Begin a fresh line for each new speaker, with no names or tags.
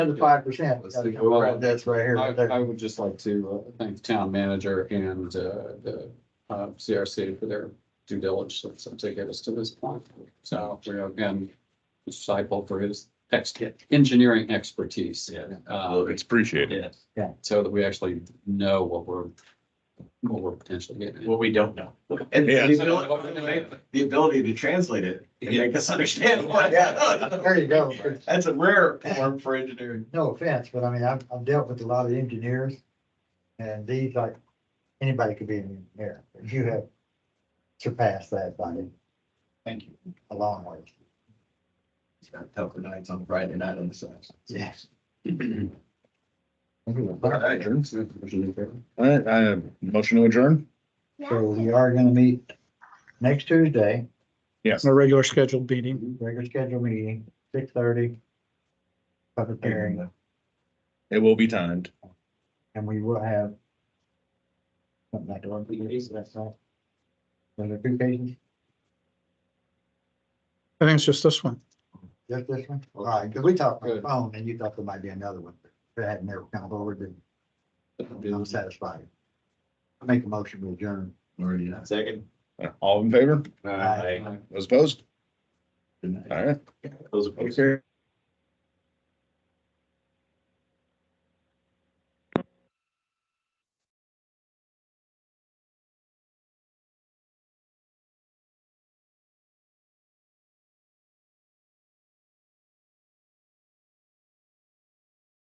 the five percent.
Let's see.
That's right here.
I,
right there.
I would just like to uh, thank the town manager and, uh, the, uh, CRC for their due diligence to get us to this point. So we are again, disciple for his ex, engineering expertise.
Yeah.
Uh,
It's appreciated.
Yeah,
so that we actually know what we're, what we're potentially getting.
what we don't know.
And
Yeah.
the ability, the ability to translate it and make us understand what.
There you go.
That's a rare form for engineering.
No offense, but I mean, I've, I've dealt with a lot of engineers. And these, like, anybody could be an engineer. You have surpassed that by
Thank you.
a long way.
Tougher nights on Friday night on the side.
Yes.
right.
Motion
All right, I have motion to adjourn.
So we are gonna meet next Tuesday,
Yes.
a regular scheduled meeting.
regular scheduled meeting, six thirty. Public hearing,
It will be timed.
and we will have. Something like the one we used last night. Was there two pages,
I think it's just this one.
just this one? All right, because we talked on the phone and you thought there might be another one, but it had never come forward and I'm satisfied. I make a motion to adjourn.
Already done. Second.
All in favor?
Aye.
Those opposed?
Good night.
All right.
Those opposed.
Okay.